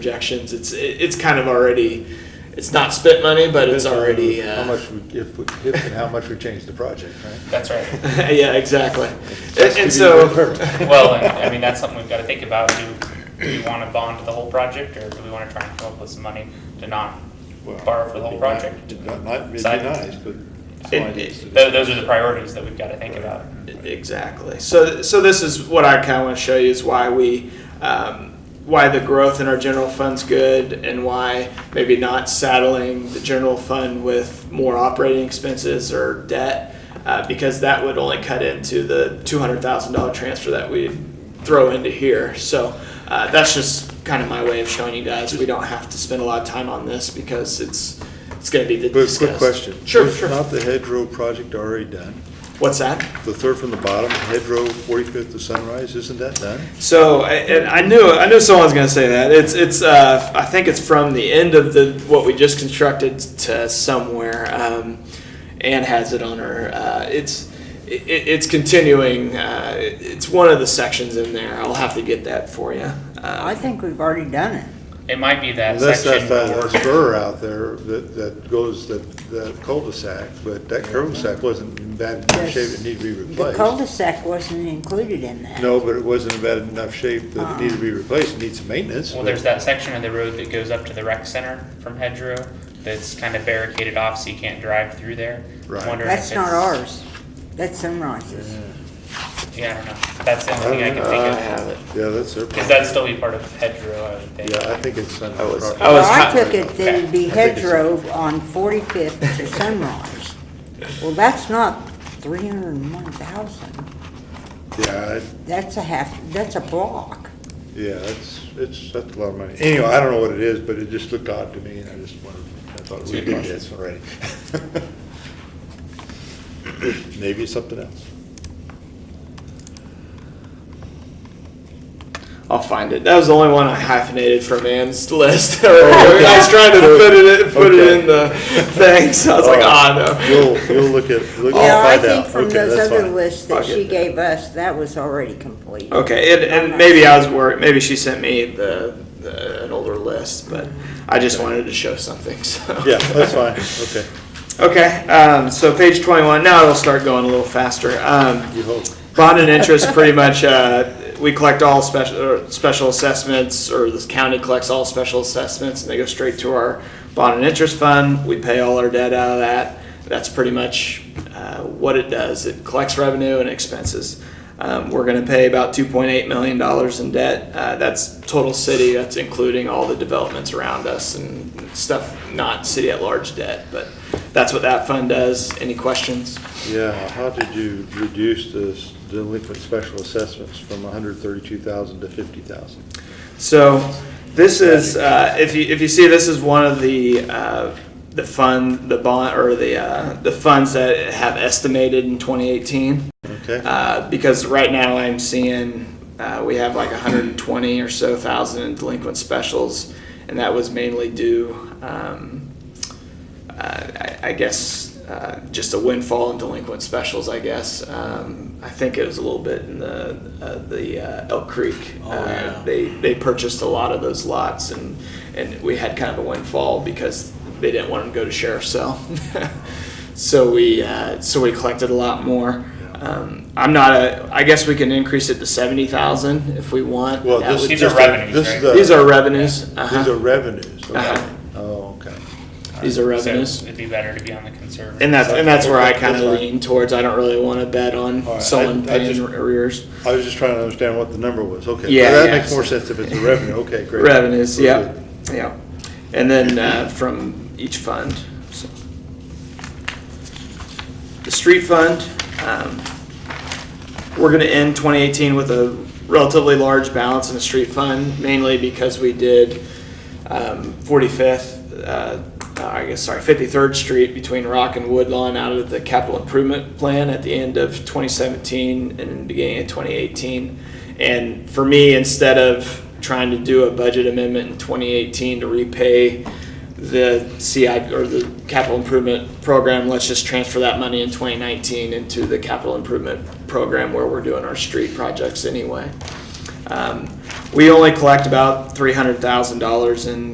projections. It's it, it's kind of already, it's not spent money, but it's already. Uh, How much, we- if, we- if and how much we changed the project, right? That's right. uh, yeah, exactly. Just And, to and be so, perfect. Well, and I mean, that's something we've got to think about. Do, do we want to bond the whole project or do we want to try and come up with some money to not borrow for the whole project? Not, not, it'd be Side. nice, but. It- Side is- Tho- Those are the priorities that we've got to think about. exactly. So so this is what I kind of want to show you is why we. Um, why the growth in our general fund's good and why maybe not saddling the general fund with more operating expenses or debt uh, because that would only cut into the $200,000 transfer that we throw into here. So uh, that's just kind of my way of showing you guys we don't have to spend a lot of time on this because it's it's going to be the But quick question. Sure, Is sure. Not the hedgerow project already done? What's that? The third from the bottom, hedgerow, forty-fifth to sunrise, isn't that done? So, I- and I knew I knew someone was going to say that. It's it's uh, I think it's from the end of the what we just constructed to somewhere. Um, Anne has it on her. Uh, it's it, it's continuing. Uh, it- it's one of the sections in there. I'll have to get that for you. I Uh, think we've already done it. It might be that Unless that's section. that where- spur out there that, that goes, that, that cul-de-sac, but that cul-de-sac wasn't in bad enough shape, it needed to be The replaced. cul-de-sac wasn't included in that. No, but it wasn't in bad enough shape that it needed to be replaced, it needs some maintenance. Well, but- there's that section of the road that goes up to the rec center from Hedgerow that's kind of barricaded off so you can't drive through there. I'm Right. wondering if That's not it's- ours. That's Sunrise's. Yeah, I don't know. That's the only thing I can I I think of. have it. Yeah, that's their Because problem. that'd still be part of Hedgerow, I would think. Yeah, I think it's on I was- property. I was Well, I Oh, hot- took it that it'd be I think it's- hedgerow on 45th to Sunrise. Well, that's not 301,000. Yeah, I- That's a half, that's a block. yeah, it's, it's, that's a lot of money. Anyway, I don't know what it is, but it just looked odd to me, and I just wondered, I thought we did this already. Maybe it's something else. I'll find it. That was the only one I hyphenated from Anne's list. I was trying to put it in, put it in the thing, so I was like, ah, no. You'll, you'll look at, look, Yeah, I'll I find think out. from Okay, those that's other fine. lists that I'll she get that. gave us, that was already complete. Okay, and, and maybe I was worried. Maybe she sent me the, the an older list, but I just wanted to show something. So. Yeah, that's fine, okay, Okay. Um, so page twenty-one. Now it'll start going a little faster. Um, you hope. bond and interest, pretty much. Uh, we collect all special or special assessments, or the county collects all special assessments, and they go straight to our bond and interest fund. We pay all our debt out of that. That's pretty much uh, what it does. It collects revenue and expenses. Um, we're going to pay about $2.8 million in debt. Uh, that's total city. That's including all the developments around us and stuff, not city at large debt. But that's what that fund does. Any questions? Yeah, how did you reduce this delinquent special assessments from hundred thirty-two thousand to fifty thousand? So this is, uh, if you, if you see, this is one of the, uh, the fund, the bond, or the, uh, the funds that have estimated in 2018. Okay? Uh, because right now I'm seeing, uh, we have like 120 or so thousand in delinquent specials, and that was mainly due, um, uh, I, I guess, uh, just a windfall in delinquent specials, I guess. Um, I think it was a little bit in the, uh, the uh, Elk Creek. Oh, Uh, yeah. They, they purchased a lot of those lots, and, and we had kind of a windfall because they didn't want them to go to sheriff's sale. So we, uh, so we collected a lot more. Um, I'm not a, I guess we can increase it to seventy thousand if we want. Well, That this would- is These are just a- revenues, this right? is a- These are revenues, These are uh-huh, revenues, okay. Uh-huh. Oh, okay. these are So revenues. it'd be better to be on the conservative. And that's, and that's where I kinda That's fine. lean towards, I don't really wanna bet All right, on I- someone I just- paying arrears. I was just trying to understand what the number was, okay. Yeah, That yeah. makes more sense if it's a revenue, okay, great. Revenues, Very yeah, good. yeah. And then, uh, from each fund, so. The street fund, um, we're gonna end twenty eighteen with a relatively large balance in the street fund, mainly because we did, um, forty-fifth, uh, I guess, sorry, fifty-third Street between Rock and Woodlawn out of the capital improvement plan at the end of twenty seventeen and beginning of twenty eighteen. And for me, instead of trying to do a budget amendment in twenty eighteen to repay the CI, or the capital improvement program, let's just transfer that money in twenty nineteen into the capital improvement program where we're doing our street projects anyway. Um, we only collect about three hundred thousand dollars in